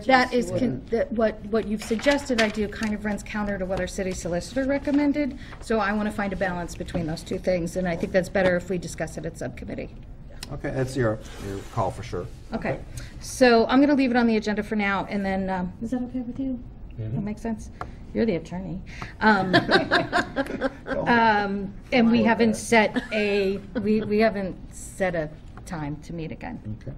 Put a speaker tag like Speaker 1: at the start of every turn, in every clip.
Speaker 1: That is, con- that what, what you've suggested I do kind of runs counter to what our city solicitor recommended, so I want to find a balance between those two things, and I think that's better if we discuss it at subcommittee.
Speaker 2: Okay, that's your, your call for sure.
Speaker 1: Okay, so I'm going to leave it on the agenda for now, and then, um, is that okay with you? That makes sense? You're the attorney. Um, um, And we haven't set a, we, we haven't set a time to meet again.
Speaker 2: Okay.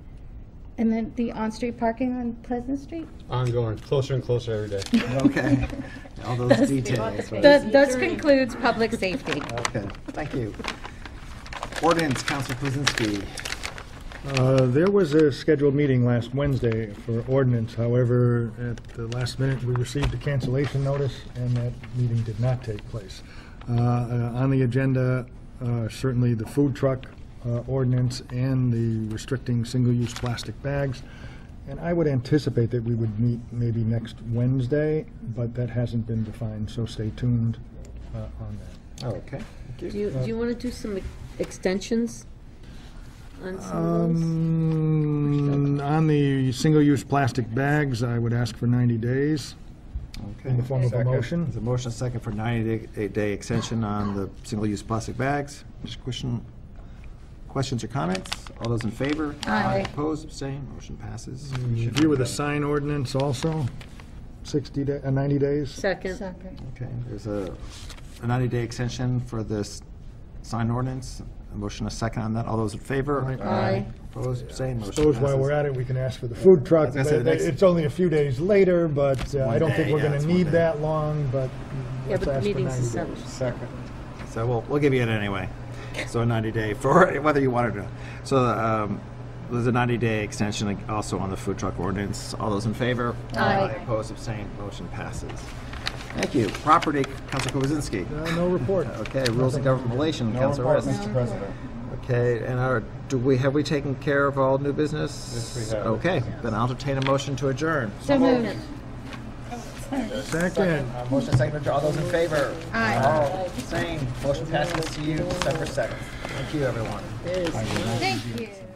Speaker 1: And then the on-street parking on Pleasant Street?
Speaker 3: Ongoing, closer and closer every day.
Speaker 2: Okay, all those details.
Speaker 1: Th- Thus concludes public safety.
Speaker 2: Okay, thank you. Ordinance, Council Kuzinski.
Speaker 4: Uh, There was a scheduled meeting last Wednesday for ordinance, however, at the last minute, we received a cancellation notice, and that meeting did not take place. Uh, uh, On the agenda, uh, certainly the food truck uh, ordinance and the restricting single-use plastic bags, and I would anticipate that we would meet maybe next Wednesday, but that hasn't been defined, so stay tuned uh, on that.
Speaker 2: Oh, Okay, thank
Speaker 5: Do
Speaker 2: you.
Speaker 5: you, do you want to do some ex- extensions on some of those?
Speaker 4: Um, on the single-use plastic bags, I would ask for 90 days in the
Speaker 2: Okay.
Speaker 4: form of a
Speaker 2: There's
Speaker 4: motion.
Speaker 2: a motion second for 90-day extension on the single-use plastic bags. Just question, questions or comments? All those in favor?
Speaker 1: Aye.
Speaker 2: Opposed, abstained, motion passes.
Speaker 4: Review with a sign ordinance also, 60, da- uh, 90 days.
Speaker 5: Second,
Speaker 2: Okay, there's a a 90-day extension for this sign ordinance. A motion a second on that. All those in favor?
Speaker 4: Aye.
Speaker 5: Aye.
Speaker 2: Opposed, abstained, motion passes.
Speaker 4: Suppose while we're at it, we can ask for the food truck.
Speaker 2: I was gonna say, the next-
Speaker 4: It's only a few days later, but uh, I don't
Speaker 2: day,
Speaker 4: think we're
Speaker 2: yeah,
Speaker 4: going
Speaker 2: it's
Speaker 4: to
Speaker 2: one
Speaker 4: need
Speaker 2: day.
Speaker 4: that long, but
Speaker 5: yeah,
Speaker 4: let's
Speaker 5: but the
Speaker 4: ask for 90
Speaker 5: meeting's
Speaker 4: days.
Speaker 5: the 7th.
Speaker 2: Second. So we'll, we'll give you it anyway. So a 90 day for whether you want it or not. So um, there's a 90 day extension also on the food truck ordinance. All those in favor? Aye. Opposed, abstained, motion passes. Thank you. Property, Council Kowazinski.
Speaker 4: Uh, No report.
Speaker 2: Okay, rules of government relation, Council Rist.
Speaker 6: President.
Speaker 2: Okay, and our, do we, have we taken care of all new business?
Speaker 6: Yes, we have.
Speaker 2: Okay, then I'll entertain a motion to adjourn.
Speaker 1: So moved.
Speaker 4: Second.
Speaker 2: Uh, Motion second, to adjourn. all those in favor?
Speaker 1: Aye.
Speaker 2: All, same, motion passes to you December 7th. Thank you, everyone.
Speaker 1: Thank you.